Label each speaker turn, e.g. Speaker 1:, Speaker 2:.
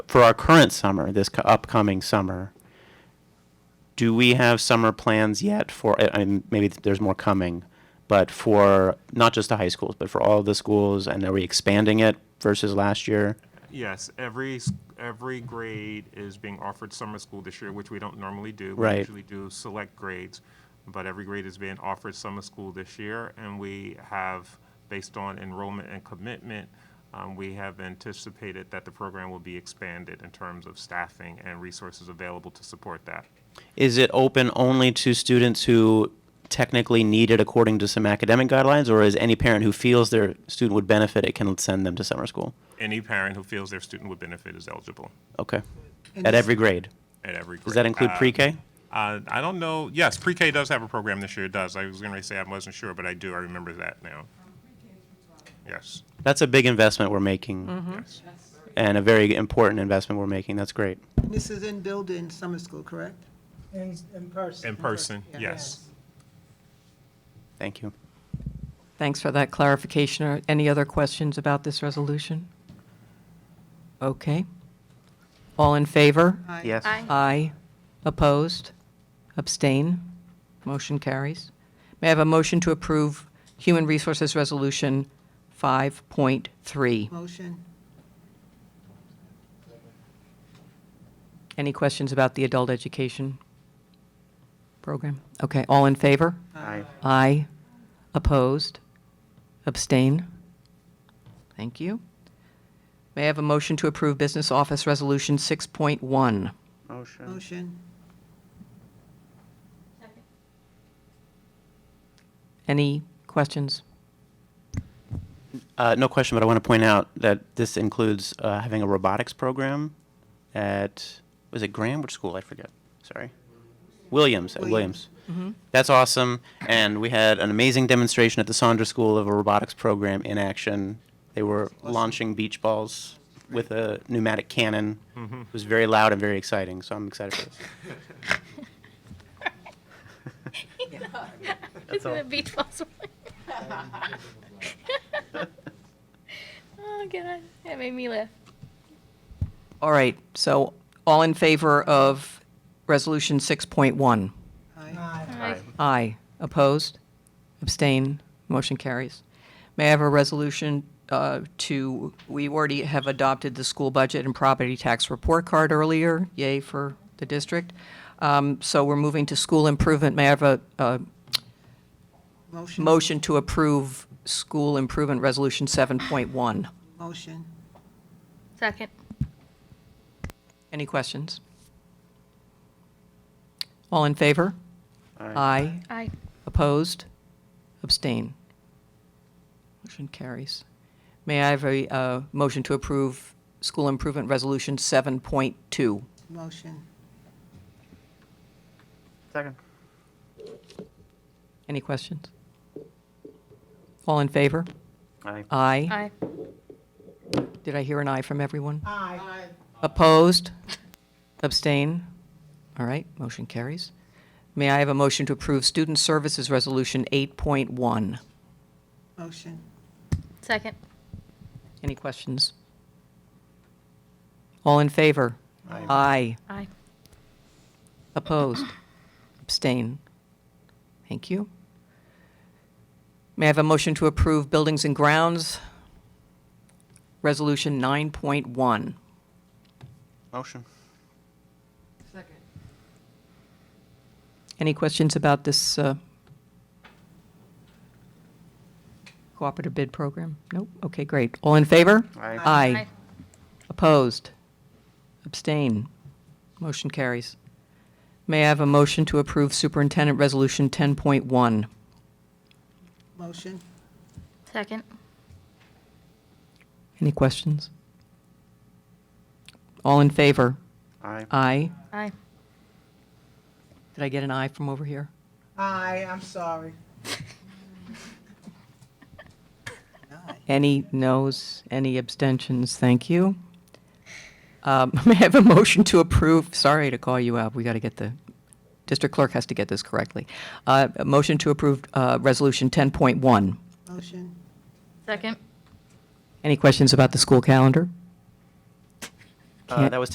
Speaker 1: for our current summer, this co- upcoming summer, do we have summer plans yet for, I- I'm, maybe there's more coming, but for not just the high schools, but for all the schools, and are we expanding it versus last year?
Speaker 2: Yes, every, s- every grade is being offered summer school this year, which we don't normally do.
Speaker 1: Right.
Speaker 2: We usually do select grades, but every grade is being offered summer school this year. And we have, based on enrollment and commitment, um, we have anticipated that the program will be expanded in terms of staffing and resources available to support that.
Speaker 1: Is it open only to students who technically need it according to some academic guidelines, or is any parent who feels their student would benefit it can send them to summer school?
Speaker 2: Any parent who feels their student would benefit is eligible
Speaker 1: Okay. At every grade.
Speaker 2: at every grade.
Speaker 1: Does that include
Speaker 2: Uh,
Speaker 1: pre-K?
Speaker 2: Uh, I don't know. Yes, pre-K does have a program this year. It does. I was going to say I wasn't sure, but I do. I remember that now. Yes.
Speaker 1: That's a big investment we're making
Speaker 2: Yes.
Speaker 1: and a very important investment we're making. That's great.
Speaker 3: This is in building summer school, correct?
Speaker 4: In, in person.
Speaker 2: In person.
Speaker 3: Yeah.
Speaker 2: Yes.
Speaker 1: Thank you.
Speaker 5: Thanks for that clarification. Are any other questions about this resolution? Okay. All in favor?
Speaker 3: Aye.
Speaker 1: Yes.
Speaker 5: Aye. Opposed? Abstain? Motion carries. May I have a motion to approve Human Resources Resolution 5.3?
Speaker 3: Motion?
Speaker 5: Any questions about the adult education program? Okay, all in favor?
Speaker 1: Aye.
Speaker 5: Aye. Opposed? Abstain? Thank you. May I have a motion to approve Business Office Resolution 6.1?
Speaker 1: Motion.
Speaker 3: Motion?
Speaker 5: Any questions?
Speaker 1: Uh, no question, but I want to point out that this includes uh, having a robotics program at, was it Graham? Which school? I forget. Sorry. Williams, at Williams.
Speaker 3: Williams.
Speaker 1: That's awesome. And we had an amazing demonstration at the Saunders School of a robotics program in action. They were launching beach balls with a pneumatic cannon. It was very loud and very exciting, so I'm excited for this.
Speaker 6: It's in the beach balls. oh god, that made me laugh.
Speaker 5: All right, so all in favor of Resolution 6.1?
Speaker 3: Aye.
Speaker 5: Aye. Opposed? Abstain? Motion carries. May I have a resolution uh, to, we already have adopted the school budget and property tax report card earlier, yay for the district. Um, So we're moving to school improvement. May I have a- a
Speaker 3: Motion?
Speaker 5: motion to approve school improvement resolution 7.1?
Speaker 3: Motion?
Speaker 6: Second.
Speaker 5: Any questions? All in favor? Aye.
Speaker 6: Aye.
Speaker 5: Opposed? Abstain? Motion carries. May I have a uh, motion to approve School Improvement Resolution 7.2?
Speaker 3: Motion?
Speaker 1: Second.
Speaker 5: Any questions? All in favor?
Speaker 1: Aye.
Speaker 5: Aye.
Speaker 6: Aye.
Speaker 5: Did I hear an aye from everyone? Aye. Opposed? Abstain? All right, motion carries. May I have a motion to approve Student Services Resolution 8.1?
Speaker 3: Motion?
Speaker 6: Second.
Speaker 5: Any questions? All in favor? Aye.
Speaker 6: Aye.
Speaker 5: Opposed? Abstain? Thank you. May I have a motion to approve Buildings and Grounds Resolution 9.1?
Speaker 1: Motion.
Speaker 5: Any questions about this uh, cooperative bid program? Nope? Okay, great. All in favor?
Speaker 1: Aye.
Speaker 5: Aye. Opposed? Abstain? Motion carries. May I have a motion to approve Superintendent Resolution 10.1?
Speaker 3: Motion?
Speaker 6: Second.
Speaker 5: Any questions? All in favor?
Speaker 1: Aye.
Speaker 5: Aye.
Speaker 6: Aye.
Speaker 5: Did I get an aye from over here?
Speaker 4: Aye, I'm sorry.
Speaker 5: Any noes? Any abstentions? Thank you. Um, May I have a motion to approve? Sorry to call you out. We got to get the, district clerk has to get this correctly. Uh, a Motion to approve uh, Resolution 10.1.
Speaker 3: Motion?
Speaker 6: Second.
Speaker 5: Any questions about the school calendar?
Speaker 1: Uh,
Speaker 7: Can't-
Speaker 1: that was